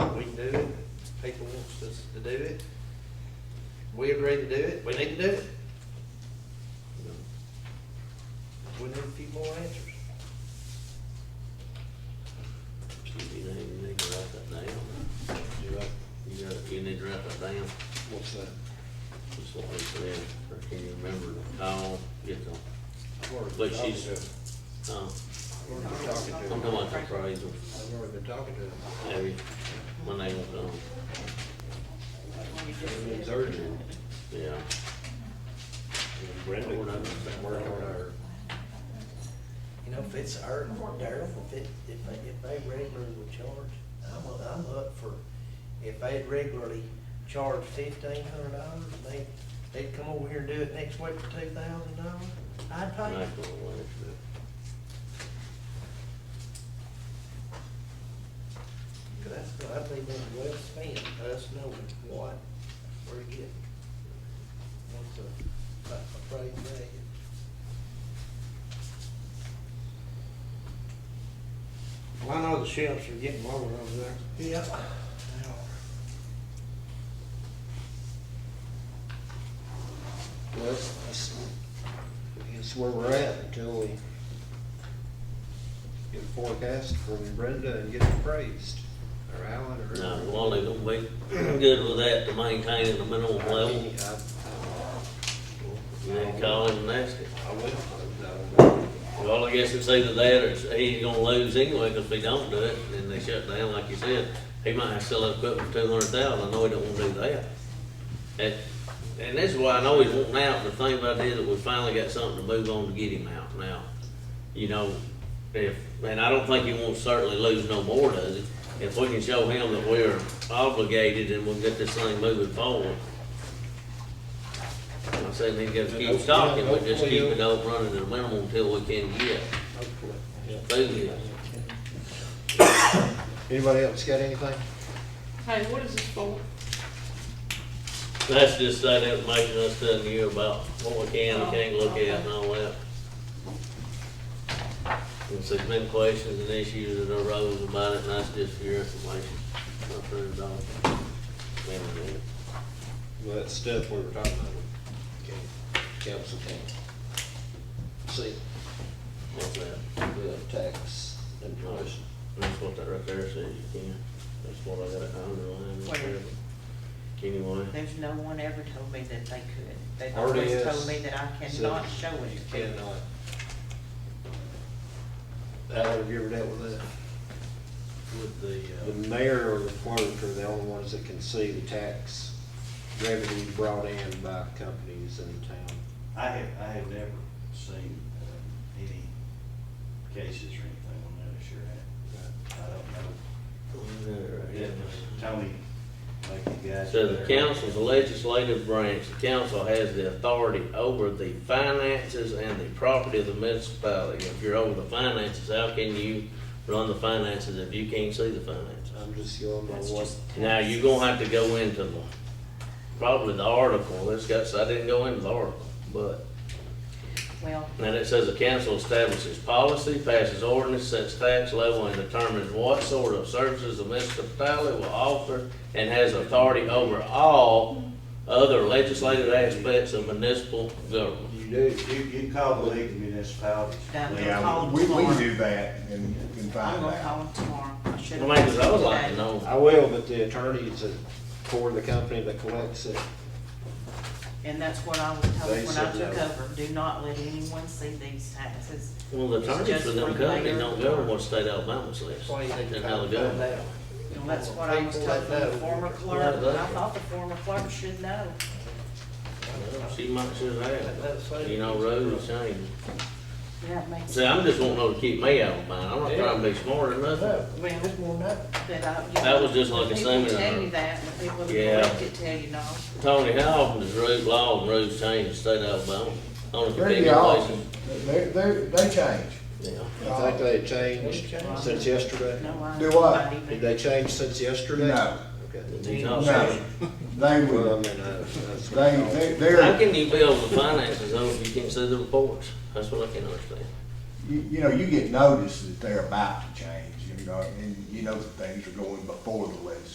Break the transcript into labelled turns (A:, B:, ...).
A: to do it. We agreed to do it, we need to do it. We need a few more answers.
B: You don't even need to write that down. You write, you got, you need to write that down.
C: What's that?
B: That's what we said, or can you remember the call, get the,
C: I've already
B: But
C: been talking
B: she's-
C: to him.
B: uh,
C: I've already been talking to
B: I'm
C: him.
B: talking about the appraisal,
C: I've already been talking to him.
B: every, when they was on,
C: It's urgent.
B: yeah.
C: And Brenda,
B: We're not-
C: working on our,
A: You know, if it's our, Darrell, if it, if they, if they regularly would charge, I'm, I'm up for, if they'd regularly charge fifteen hundred dollars, they, they'd come over here and do it next week for two thousand dollars, I'd pay. it.
B: National election.
A: Cause that's, I think that's well spent, us knowing what we're getting. What's the, a price value?
C: well, I know the sheriffs are getting lower over there.
A: Yep. They are.
C: Well, that's, that's- that's where we're at until we get a forecast from Brenda and get it appraised, or Alan, or.
B: Now, Wally gonna be good with that to maintain at a minimum
C: I
B: level,
C: mean, I- I-
B: and then call him and ask him.
C: I will, I will.
B: Well, I guess it's either that or it's- he ain't gonna lose anyway, because if he don't do it, then they shut down, like you said. He might have to sell that equipment for two hundred thousand, I know he don't wanna do that. And, and that's why I know he's wanting out, the thing about it is that we finally got something to move on to get him out now. You know, if, and I don't think he won't certainly lose no more, does he? If we can show him that we're obligated and we'll get this thing moving forward. I'm saying he gotta keep stocking, but just keep it up running at a minimum until we can get
C: Hopefully.
B: through this.
C: Anybody else got anything?
D: Hey, what is this for?
B: That's just that information I was telling you about what we can, and can't look at and all that. And so there's been questions and issues that arose about it, and that's just for your information. Not for the dog.
C: Well, that stuff we were talking about, we can't, council can't see
B: What's that?
C: the tax information.
B: That's what that right there says you can. That's what I got it underlined. right there. Anyway.
E: There's no one ever told me that they could. They've
C: RDS
E: always told me that I cannot
C: says
E: show
C: You
E: it. to people.
C: cannot. Alan, have you ever dealt with that?
B: With the, uh,
C: The mayor or the clerk are the only ones that can see the tax revenue brought in by companies in the town.
F: I have, I have never seen um, any cases or anything on that, I sure have. I don't know. Yeah, but Tony, like the guys.
B: So the
F: there-
B: council's the legislative branch, the council has the authority over the finances and the property of the municipality. If you're over the finances, how can you run the finances if you can't see the finances?
C: I'm just going by
E: That's
C: what,
E: just
B: Now, you're gonna have to go into the, probably the article, it's got, I didn't go into the article, but,
E: Well,
B: and it says the council establishes policy, passes ordinance, sets tax level, and determines what sort of services the municipality will offer, and has authority over all other legislative aspects of municipal government.
C: you do.
F: You, you call the League of Municipalities.
E: Down there.
F: Leon.
E: Call
G: Yeah, we, we
E: tomorrow.
G: can do that and, and
E: I'm
G: find
E: gonna
G: out.
E: call them tomorrow. I should
B: Well,
E: have.
B: man, 'cause I would like to know,
C: I will, but the attorneys that, for the company that collects it,
E: And that's what I was told
C: They
E: when I
C: said
E: took
C: no.
E: over. Do not let anyone see these taxes.
B: well, the attorneys for them companies don't govern what state Alabama says,
A: That's why you need to
B: and
A: try
B: how
A: to
B: they
A: find
B: govern.
A: out.
E: And that's what I was
A: People
E: told
A: that
E: from the
A: know.
E: former
B: Yeah,
E: clerk. and I
B: that's-
E: thought the former clerk should know.
B: She might should have, you know, roads change.
E: That makes,
B: See,
E: that
B: I'm just wanting her to keep me out of mine, I'm not trying to be smart or nothing.
A: No, man, it's more than that.
E: I. you
B: That
E: know,
B: was just like
E: the
B: a seminar.
E: People tell you that, and the people
B: Yeah.
E: that correct it tell you no.
B: Tony, how often does road law and roads change in state Alabama? On a
G: Pretty
B: continual
G: often,
B: basis?
G: they, they, they change.
B: Yeah.
C: I think they changed since yesterday.
E: No, I.
G: Do what?
E: not even-
C: Did they change since yesterday?
G: No,
C: Okay.
B: He's not
G: no,
B: saying-
C: Well, I
G: they will,
C: mean, I- that's-
G: they, they,
B: How
G: they're,
B: can you build the finances though if you can't see the reports? That's what I can't understand.
G: you, you know, you get notice that they're about to change, you know, and you know that things are going before the